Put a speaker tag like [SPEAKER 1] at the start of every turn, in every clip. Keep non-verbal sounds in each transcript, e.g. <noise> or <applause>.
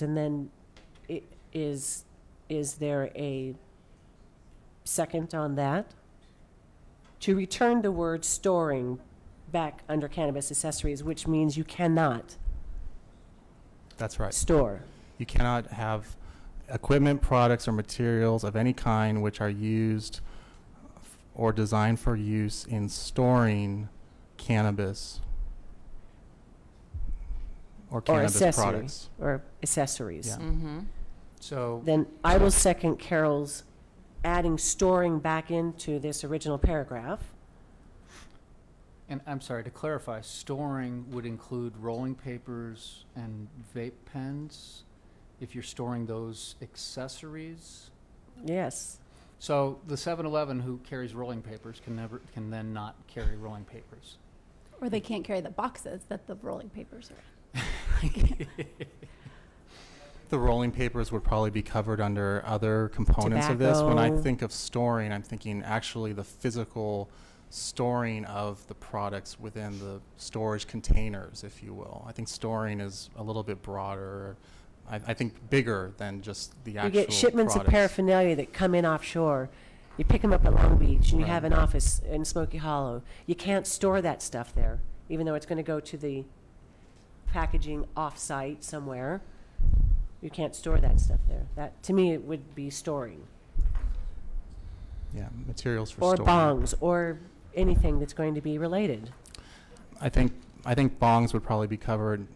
[SPEAKER 1] And then i- is, is there a second on that? To return the word storing back under cannabis accessories, which means you cannot
[SPEAKER 2] That's right.
[SPEAKER 1] store.
[SPEAKER 2] You cannot have equipment, products, or materials of any kind which are used f- or designed for use in storing cannabis or
[SPEAKER 1] Or
[SPEAKER 2] cannabis
[SPEAKER 1] accessory,
[SPEAKER 2] products.
[SPEAKER 1] or accessories.
[SPEAKER 2] Yeah.
[SPEAKER 3] Mm-hmm.
[SPEAKER 2] So,
[SPEAKER 1] Then I will second Carol's adding storing back into this original paragraph.
[SPEAKER 4] And I'm sorry, to clarify, storing would include rolling papers and vape pens if you're storing those accessories?
[SPEAKER 1] Yes,
[SPEAKER 4] So the 7-Eleven who carries rolling papers can never, can then not carry rolling papers.
[SPEAKER 5] Or they can't carry the boxes that the rolling papers are. in.
[SPEAKER 2] the rolling papers would probably be covered under other components of this. When I
[SPEAKER 1] Tobacco.
[SPEAKER 2] think of storing, I'm thinking actually the physical storing of the products within the storage containers, if you will. I think storing is a little bit broader, I, I think bigger than just the
[SPEAKER 1] you
[SPEAKER 2] actual
[SPEAKER 1] get shipments of
[SPEAKER 2] products.
[SPEAKER 1] paraphernalia that come in offshore. You pick them up at Long Beach, and you have
[SPEAKER 2] Right.
[SPEAKER 1] an office in Smoky Hollow. You can't store that stuff there, even though it's going to go to the packaging off-site somewhere. You can't store that stuff there. That, to me, it would be storing.
[SPEAKER 2] Yeah, materials for
[SPEAKER 1] Or
[SPEAKER 2] storing.
[SPEAKER 1] bongs, or anything that's going to be related.
[SPEAKER 2] I think, I think bongs would probably be covered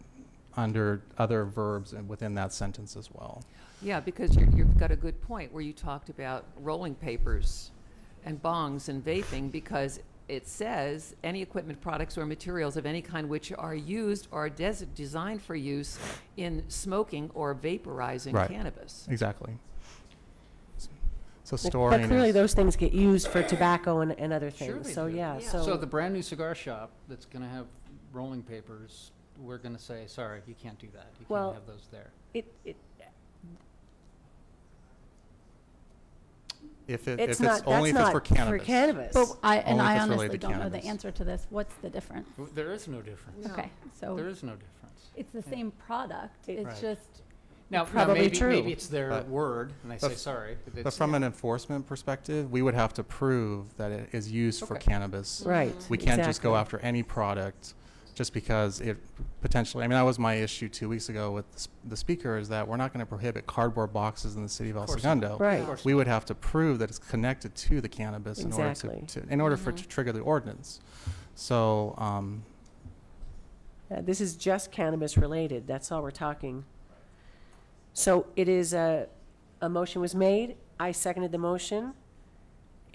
[SPEAKER 2] under other verbs and within that sentence as well.
[SPEAKER 3] Yeah, because you're, you've got a good point where you talked about rolling papers and bongs and vaping because it says any equipment, products, or materials of any kind which are used or des- designed for use in smoking or vaporizing
[SPEAKER 2] Right.
[SPEAKER 3] cannabis.
[SPEAKER 2] Exactly. So
[SPEAKER 1] But-
[SPEAKER 2] storing
[SPEAKER 1] But clearly,
[SPEAKER 2] is-
[SPEAKER 1] these things get used for tobacco and, and other
[SPEAKER 4] Sure
[SPEAKER 1] things,
[SPEAKER 4] they
[SPEAKER 1] so,
[SPEAKER 4] do.
[SPEAKER 1] yeah,
[SPEAKER 3] Yeah.
[SPEAKER 1] so.
[SPEAKER 4] So the brand-new cigar shop that's gonna have rolling papers, we're gonna say, sorry, you can't do that. You
[SPEAKER 1] Well-
[SPEAKER 4] can't have those there.
[SPEAKER 1] It, it,
[SPEAKER 2] If it,
[SPEAKER 1] it's
[SPEAKER 2] if it's
[SPEAKER 1] not,
[SPEAKER 2] only
[SPEAKER 1] that's
[SPEAKER 2] if it's
[SPEAKER 1] not
[SPEAKER 2] for
[SPEAKER 1] for
[SPEAKER 2] cannabis.
[SPEAKER 1] cannabis.
[SPEAKER 5] But I, and
[SPEAKER 2] Only if
[SPEAKER 5] I
[SPEAKER 2] it's
[SPEAKER 5] honestly
[SPEAKER 2] related to
[SPEAKER 5] don't know the
[SPEAKER 2] cannabis.
[SPEAKER 5] answer to this. What's the difference?
[SPEAKER 4] W- There is no difference.
[SPEAKER 3] No.
[SPEAKER 5] Okay,
[SPEAKER 4] There
[SPEAKER 5] so
[SPEAKER 4] is no difference.
[SPEAKER 5] it's the same product.
[SPEAKER 1] It-
[SPEAKER 5] It's
[SPEAKER 4] Right.
[SPEAKER 5] just,
[SPEAKER 4] Now, now
[SPEAKER 1] probably
[SPEAKER 4] maybe,
[SPEAKER 1] true.
[SPEAKER 4] maybe it's their
[SPEAKER 2] But-
[SPEAKER 4] word, and they
[SPEAKER 2] but
[SPEAKER 4] say,
[SPEAKER 2] f-
[SPEAKER 4] sorry.
[SPEAKER 2] But
[SPEAKER 4] it's-
[SPEAKER 2] from an enforcement perspective, we would have to prove that it is used for
[SPEAKER 4] Okay.
[SPEAKER 2] cannabis.
[SPEAKER 1] Right.
[SPEAKER 2] We can't just go
[SPEAKER 1] exactly.
[SPEAKER 2] after any product just because it potentially, I mean, that was my issue two weeks ago with the s- the speaker is that we're not going to prohibit cardboard boxes in the city of El
[SPEAKER 4] Of course not.
[SPEAKER 2] Segundo.
[SPEAKER 1] Right.
[SPEAKER 4] Of course
[SPEAKER 2] We would have to prove that it's connected to the cannabis in order to,
[SPEAKER 1] Exactly. Mm-hmm.
[SPEAKER 2] to- in order for, it
[SPEAKER 3] Mhm.
[SPEAKER 2] to trigger the ordinance. So, um,
[SPEAKER 1] Uh, This is just cannabis related, that's all we're talking. So it is a, a motion was made, I seconded the motion.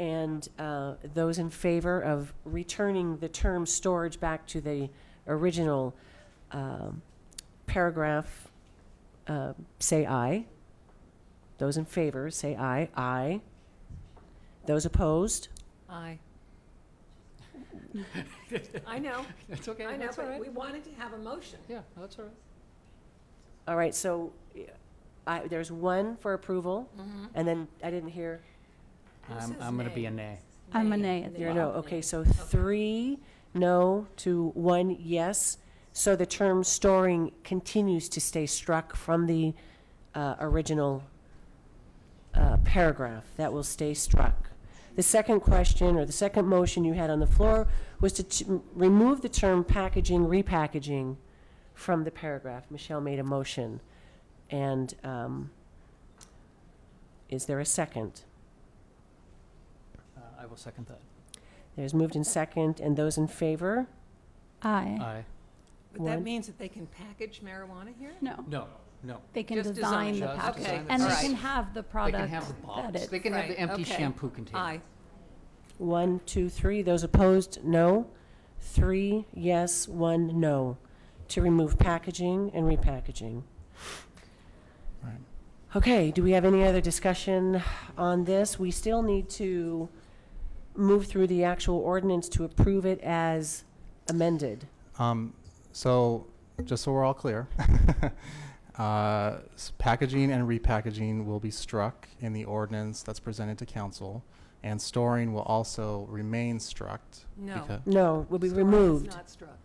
[SPEAKER 1] And uh, those in favor of returning the term storage back to the original um, paragraph, uh, say aye. Those in favor, say aye, aye. Those opposed?
[SPEAKER 4] <laughs>
[SPEAKER 3] I. I know,
[SPEAKER 4] It's okay,
[SPEAKER 3] I know,
[SPEAKER 4] that's all
[SPEAKER 3] but
[SPEAKER 4] right.
[SPEAKER 3] we wanted to have a motion.
[SPEAKER 4] Yeah, that's all right.
[SPEAKER 1] All right, so yeah, I, there's one for approval,
[SPEAKER 4] Mm-hmm.
[SPEAKER 1] and then I didn't hear
[SPEAKER 3] Who
[SPEAKER 4] I'm,
[SPEAKER 3] says
[SPEAKER 4] I'm gonna be
[SPEAKER 3] nay?
[SPEAKER 4] a nay.
[SPEAKER 5] I'm a nay as
[SPEAKER 1] You're a
[SPEAKER 5] well.
[SPEAKER 1] no, okay, so three no to one yes. So the term storing continues to stay struck from the uh, original uh, paragraph. That will stay struck. The second question, or the second motion you had on the floor, was to ch- remove the term packaging, repackaging from the paragraph. Michelle made a motion. And um, is there a second?
[SPEAKER 4] Uh, I will second that.
[SPEAKER 1] There's moved in second, and those in favor?
[SPEAKER 5] I,
[SPEAKER 4] Aye.
[SPEAKER 3] But that
[SPEAKER 1] One.
[SPEAKER 3] means that they can package marijuana here?
[SPEAKER 5] no,
[SPEAKER 4] No, no.
[SPEAKER 5] they can
[SPEAKER 3] Just design
[SPEAKER 5] design the
[SPEAKER 4] just
[SPEAKER 5] package.
[SPEAKER 4] design the
[SPEAKER 5] And they
[SPEAKER 3] product.
[SPEAKER 5] can have the
[SPEAKER 4] They
[SPEAKER 5] product
[SPEAKER 4] can have the box.
[SPEAKER 5] that
[SPEAKER 4] They
[SPEAKER 5] it,
[SPEAKER 4] can have
[SPEAKER 3] Right,
[SPEAKER 4] the empty
[SPEAKER 3] okay.
[SPEAKER 4] shampoo container.
[SPEAKER 3] Aye.
[SPEAKER 1] One, two, three. Those opposed, no. Three, yes, one, no, to remove packaging and repackaging.
[SPEAKER 2] Right.
[SPEAKER 1] Okay, do we have any other discussion on this? We still need to move through the actual ordinance to approve it as amended.
[SPEAKER 2] Um, so, just so we're all clear, <laughs> uh, s- packaging and repackaging will be struck in the ordinance that's presented to council, and storing will also remain struck.
[SPEAKER 3] No.
[SPEAKER 2] becau-
[SPEAKER 1] No, will be
[SPEAKER 3] Storing is
[SPEAKER 1] removed.
[SPEAKER 3] Not struck.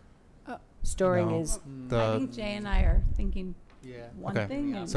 [SPEAKER 1] Storing
[SPEAKER 2] No.
[SPEAKER 1] is,
[SPEAKER 4] Mm.
[SPEAKER 2] The-
[SPEAKER 5] I think Jay and I are thinking
[SPEAKER 4] Yeah.
[SPEAKER 5] one
[SPEAKER 6] Okay.
[SPEAKER 5] thing
[SPEAKER 4] Yeah.
[SPEAKER 5] and